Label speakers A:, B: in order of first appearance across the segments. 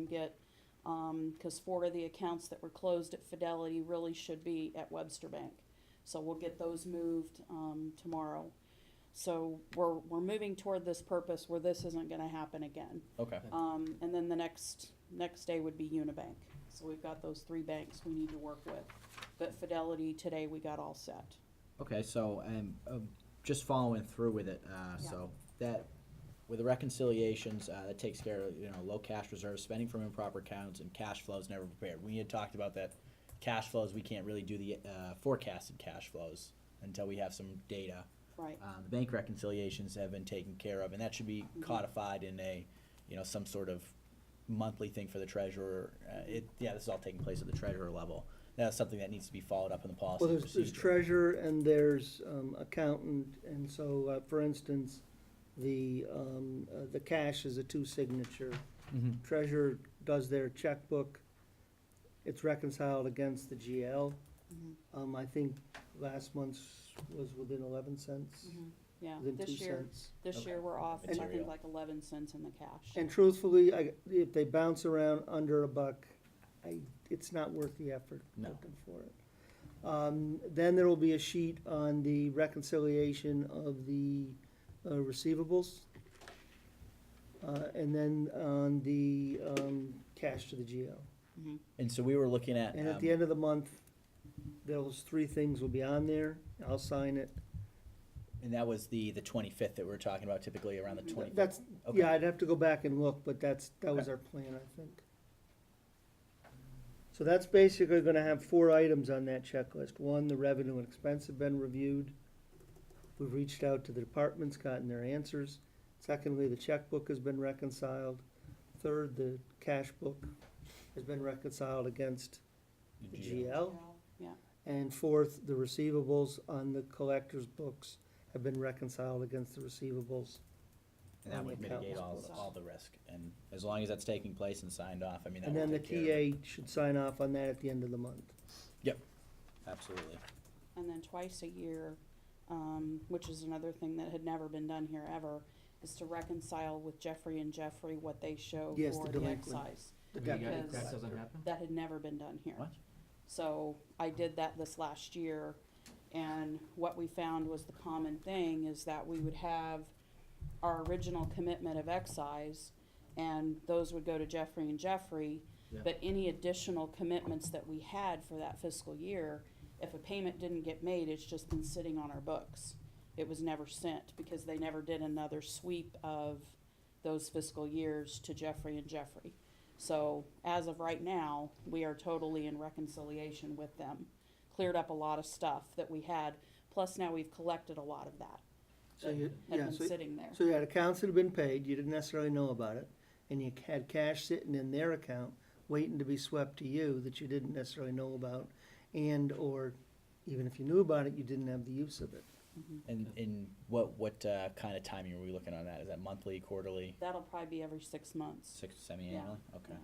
A: get, um, cause four of the accounts that were closed at Fidelity really should be at Webster Bank. So we'll get those moved, um, tomorrow. So we're, we're moving toward this purpose where this isn't gonna happen again.
B: Okay,
A: Um, and then the next, next day would be Unibank. So we've got those three banks we need to work with. But Fidelity, today, we got all set.
B: okay, so, and, um, just following through with it, uh,
A: Yeah.
B: so, that, with the reconciliations, uh, that takes care of, you know, low cash reserves, spending from improper accounts, and cash flows never prepared. We had talked about that, cash flows, we can't really do the, uh, forecasted cash flows until we have some data.
A: Right,
B: Um, the bank reconciliations have been taken care of, and that should be codified in a, you know, some sort of monthly thing for the treasurer. Uh, it, yeah, this is all taking place at the treasurer level. That's something that needs to be followed up in the policy
C: Well,
B: and
C: there's, there's
B: procedure.
C: treasurer and there's um, accountant, and so, uh, for instance, the, um, uh, the cash is a two-signature.
B: Mhm.
C: Treasurer does their checkbook, it's reconciled against the GL.
A: Mhm.
C: Um, I think last month's was within eleven cents,
A: yeah.
C: within two
A: Mm-hmm. This year,
C: cents.
A: this
B: Okay.
A: year, we're off, I think,
B: Material.
A: like eleven cents in the cash.
C: And truthfully, I, if they bounce around under a buck, I, it's not worth the effort
B: No.
C: looking for it. Um, then there will be a sheet on the reconciliation of the, uh, receivables. Uh, and then on the, um, cash to the GL.
A: Mhm.
B: And so we were looking at,
C: And at
B: um,
C: the end of the month, those three things will be on there, I'll sign it.
B: and that was the, the twenty-fifth that we we're talking about typically around the
A: Mhm.
B: twenty-fifth.
C: That's, yeah, I'd have to go back and look, but that's, that was
B: Okay.
C: our plan, I think. So that's basically gonna have four items on that checklist. One, the revenue and expense have been reviewed. We've reached out to the departments, gotten their answers. Secondly, the checkbook has been reconciled. Third, the cash book has been reconciled against the GL.
A: Yeah,
C: And fourth, the receivables on the collector's books have been reconciled against the receivables.
B: And that
C: on
B: would
C: the account.
B: mitigate all, all the risk, and as long as that's taking place and signed off, I mean, that
C: And then the
B: would take care of it.
C: TA should sign off on that at the end of the month.
B: Absolutely.
A: and then twice a year, um, which is another thing that had never been done here ever, is to reconcile with Jeffrey and Jeffrey what they show
C: Yes,
A: for
C: the
A: the
C: delinquent.
A: excise.
C: The
D: We got-
C: debt
A: Because-
D: That doesn't happen?
A: That had never been done here.
B: What?
A: So I did that this last year, and what we found was the common thing is that we would have our original commitment of excise, and those would go to Jeffrey and Jeffrey.
B: Yeah.
A: But any additional commitments that we had for that fiscal year, if a payment didn't get made, it's just been sitting on our books. It was never sent, because they never did another sweep of those fiscal years to Jeffrey and Jeffrey. So as of right now, we are totally in reconciliation with them. Cleared up a lot of stuff that we had, plus now we've collected a lot of that
C: So you,
A: had
C: yeah,
A: been
C: so,
A: sitting there.
C: so you had accounts that had been paid, you didn't necessarily know about it, and you had cash sitting in their account, waiting to be swept to you that you didn't necessarily know about, and/or even if you knew about it, you didn't have the use of it.
B: And, and what, what, uh, kind of timing are we looking on that? Is that monthly, quarterly,
A: That'll probably be every six months.
B: six, semi-annually? Okay.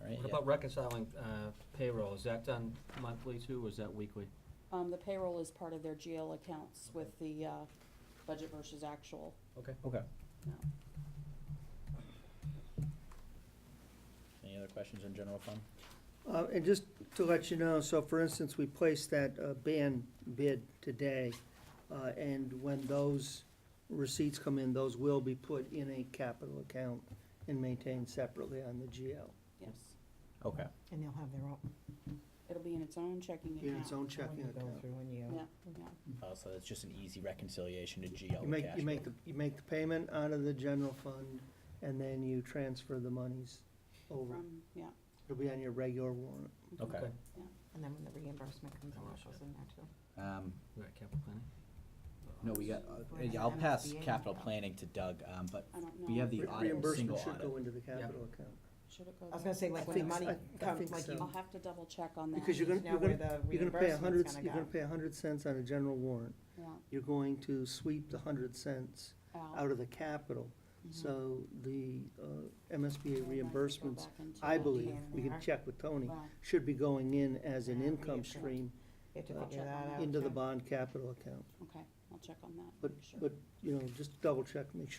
B: All right,
D: What
B: yeah.
D: about reconciling uh, payroll? Is that done monthly too, or is that weekly?
A: Um, the payroll is part of their GL accounts with the, uh, budget versus actual.
D: Okay.
B: Okay.
A: No.
B: Any other questions on general fund?
C: Uh, and just to let you know, so for instance, we placed that, uh, ban bid today, uh, and when those receipts come in, those will be put in a capital account and maintained separately on the GL,
A: Yes.
B: Okay,
E: And they'll have their own,
A: It'll be in its own checking
C: in its
A: account.
C: own
E: when
C: checking
E: you go
C: account.
E: through and you.
A: Yeah, yeah.
B: oh, so it's just an easy reconciliation to GL
C: You
B: with
C: make,
B: cash.
C: you make, the you make the payment out of the general fund, and then you transfer the monies over.
A: From, yeah.
C: It'll be on your regular warrant.
B: Okay,
D: Okay.
E: And then when the reimbursement comes in,
D: Oh,
E: that
D: shit.
E: goes in there too.
B: um,
D: We got capital planning?
B: no, we got, uh,
E: We're in
B: yeah, I'll
E: the
B: pass
E: MSBA
B: capital
E: now.
B: planning to Doug, um, but
A: I don't know.
B: We have the
C: Re-
A: if-
B: audit, single
C: Reimbursement should
B: audit.
C: go into the capital account.
A: Should it go
E: I was
A: there?
E: gonna say, like, when the
C: think s-
E: money
C: I- I
E: comes,
C: think
E: like
C: so.
E: you
A: I'll have to double check on that.
C: Because you're gonna-
E: know where the
C: You're gonna pay a hundred,
E: reimbursement's
C: you're gonna
E: gonna go.
C: pay a hundred cents on a general warrant.
A: Yeah,
C: You're going to sweep the hundred cents
A: out.
C: out of the capital.
A: Mhm.
C: So the uh,
A: Yeah, I
C: MSBA
A: might have to go
C: reimbursements,
A: back into
C: I
A: that.
C: believe, we
E: Yeah.
C: can check with Tony,
A: Well, uh,
C: should be going in as an
E: Yeah,
C: income
E: reoccurring.
C: stream
E: You have to
C: uh,
E: figure that out.
C: into the
E: too.
C: bond capital account.
A: Okay, I'll check on that.
C: But,
A: Sure.
C: but, you know, just double check, make sure